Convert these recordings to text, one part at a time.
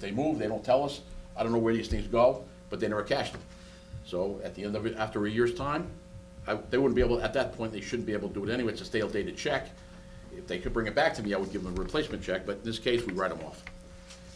they move, they don't tell us. I don't know where these things go, but they never cash them. So at the end of it, after a year's time, I, they wouldn't be able, at that point, they shouldn't be able to do it anyway. It's a stale dated check. If they could bring it back to me, I would give them a replacement check, but in this case, we write them off.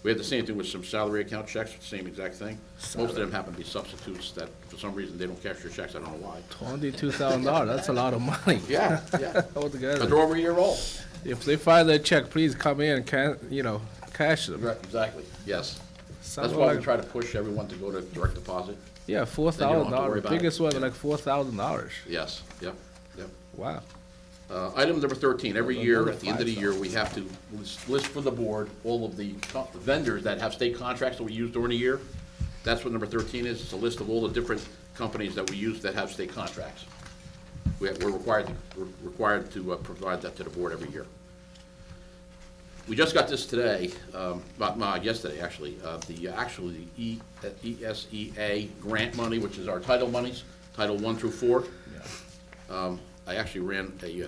We had the same thing with some salary account checks, same exact thing. Most of them happen to be substitutes that, for some reason, they don't cash their checks, I don't know why. Twenty-two thousand dollars, that's a lot of money. Yeah, yeah. But Altogether. they're over a year old. If they file their check, please come in and can, you know, cash them. Right, Exactly, yes. That's Something why we like- try to push everyone to go to direct deposit. Yeah, four Then you don't have thousand to worry dollars, about it. biggest one, like four thousand dollars. Yes, yep, yep. Wow. Uh, Item number 13, every year, at the end of the Another year, we have to list- list for the board all of the co- vendors that have state contracts that we use during the year. That's what number 13 is, it's a list of all the different companies that we use that have state contracts. We- We're required, to- we're required to uh, provide that to the board every year. We just got this today, um, about, no, yesterday, actually, uh, the, actually, E- uh, ESEA grant money, which is our title monies, Title One through Four. Um, I actually ran a, uh,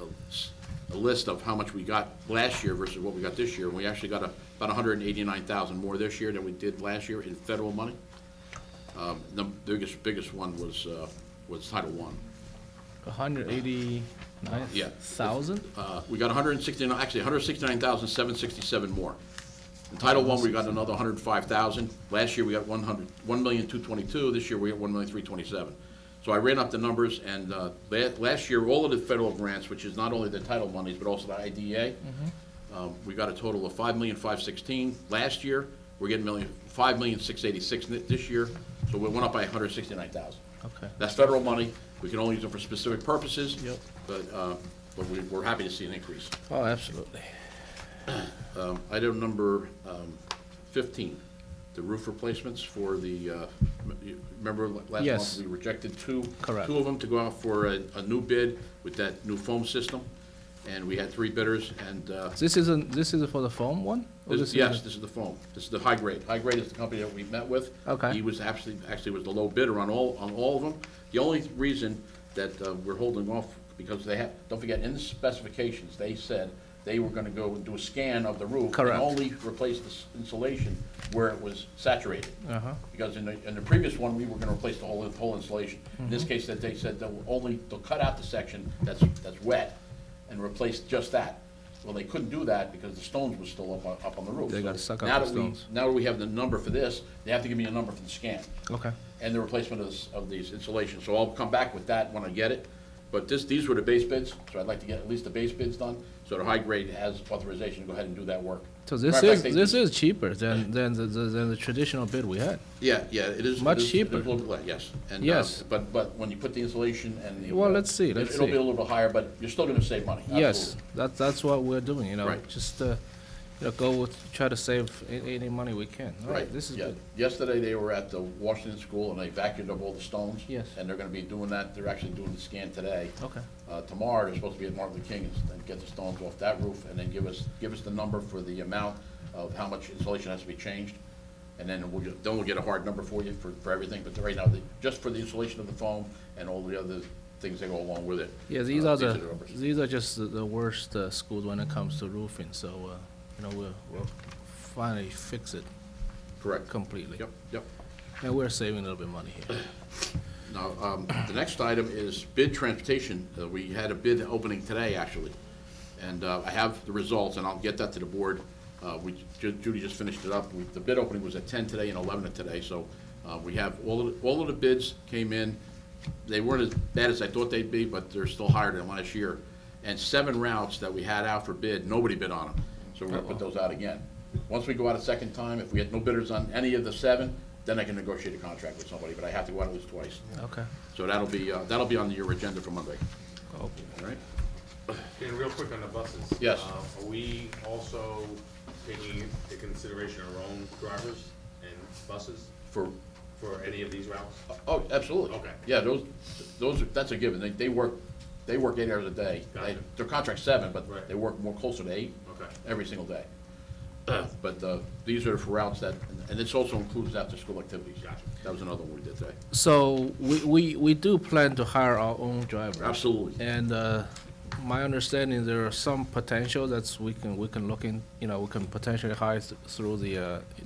a s- a list of how much we got last year versus what we got this year. And we actually got a- about 189,000 more this year than we did last year in federal money. Um, The biggest, biggest one was, uh, was Title One. A hundred eighty-nine Yeah. thousand? Uh, we got 169, actually 169,767 more. In Title One, we got another 105,000. Last year, we got 100, 1,222. This year, we got 1,327. So I ran up the numbers, and uh, la- last year, all of the federal grants, which is not only the title monies, but also the IDA, um, we got a total of 5,516 last year. We're getting million, 5,686 ni- this year, so we went up by 169,000. Okay. That's federal money. We can only use it for specific purposes. Yep. But, uh, but we, we're happy to see an increase. Oh, absolutely. Um, Item number um, 15, the roof replacements for the, uh, m- you remember la- last month? Yes. We rejected two. Correct. Two of them to go out for a, a new bid with that new foam system. And we had three bidders and, uh, This isn't, this is for the foam one? Or this- Oh, is- yes, this is the foam. This is the high grade. High grade is the company that we met with. Okay. He was actually, actually was the low bidder on all, on all of them. The only reason that uh, we're holding off, because they have, don't forget, in the specifications, they said they were gonna go and do a scan of the roof. Correct. And only replace the s- insulation where it was saturated. Uh-huh. Because in the, in the previous one, we were gonna replace the whole, the whole insulation. In Mm-hmm. this case, that they said they'll only, they'll cut out the section that's, that's wet and replace just that. Well, they couldn't do that because the stones were still up, on- up on the roof. They So gotta suck up now the that we- stones. Now that we have the number for this, they have to give me a number for the scan Okay. and the replacement of, this- of these installations. So I'll come back with that when I get it. But this, these were the base bids, so I'd like to get at least the base bids done, so the high grade has authorization to go ahead and do that work. So this Matter of is, fact, they- this is cheaper than, than the, the- than the traditional bid we had. Yeah, yeah, it is. Much it is- it cheaper. is a little bit less, yes. And, uh, Yes. But, but when you put the insulation and the. Well, uh, let's see, it- let's It'll be see. a little bit higher, but you're still gonna save money. Yes, absolutely. that's, that's what we're doing, you know, Right. just, uh, you know, go with, try to save a- any money we can. All right, Right, this is yeah. good. Yesterday, they were at the Washington School and they vacuumed up all the stones. Yes. And they're gonna be doing that. They're actually doing the scan today. Okay. Uh, tomorrow, they're supposed to be at Martin Luther King and- and get the stones off that roof and then give us, give us the number for the amount of how much insulation has to be changed. And then we'll, get- then we'll get a hard number for you for, for everything, but right now, the- just for the insulation of the foam and all the other things that go along with it. Yeah, these uh, are the, numbers. these are just the- the worst uh, schools when it comes to roofing, so, uh, you know, we'll, we'll finally fix it Correct. completely. Yep, yep. And we're saving a little bit of money here. Now, um, the next item is bid transportation. Uh, We had a bid opening today, actually, and uh, I have the results, and I'll get that to the board. Uh, We Ju- Judy just finished it up. We- The bid opening was at 10 today and 11 of today, so uh, we have, all of the- all of the bids came in. They weren't as bad as I thought they'd be, but they're still higher than last year. And seven routes that we had out for bid, nobody bid on them, so we're going to put those out again. Once we go out a second time, if we had no bidders on any of the seven, then I can negotiate a contract with somebody, but I have to go out at least twice. Okay. So that'll be, uh, that'll be on your agenda for Monday, Oh, all right? And real quick on the buses. Yes. Uh, Are we also taking into consideration our own drivers and buses For, for any of these routes? oh, absolutely. Okay. Yeah, those, those, are- that's a given. They, they work, they work eight hours a day. They- Gotcha. Their contract's seven, Right. but they work more closer to eight. Okay. Every single day. But uh, these are for routes that, and this also includes after-school activities. Gotcha. That was another one we did today. So we, we, we do plan to hire our own driver. Absolutely. And uh, my understanding, there are some potential that's we can, we can look in, you know, we can potentially hire th- through the uh,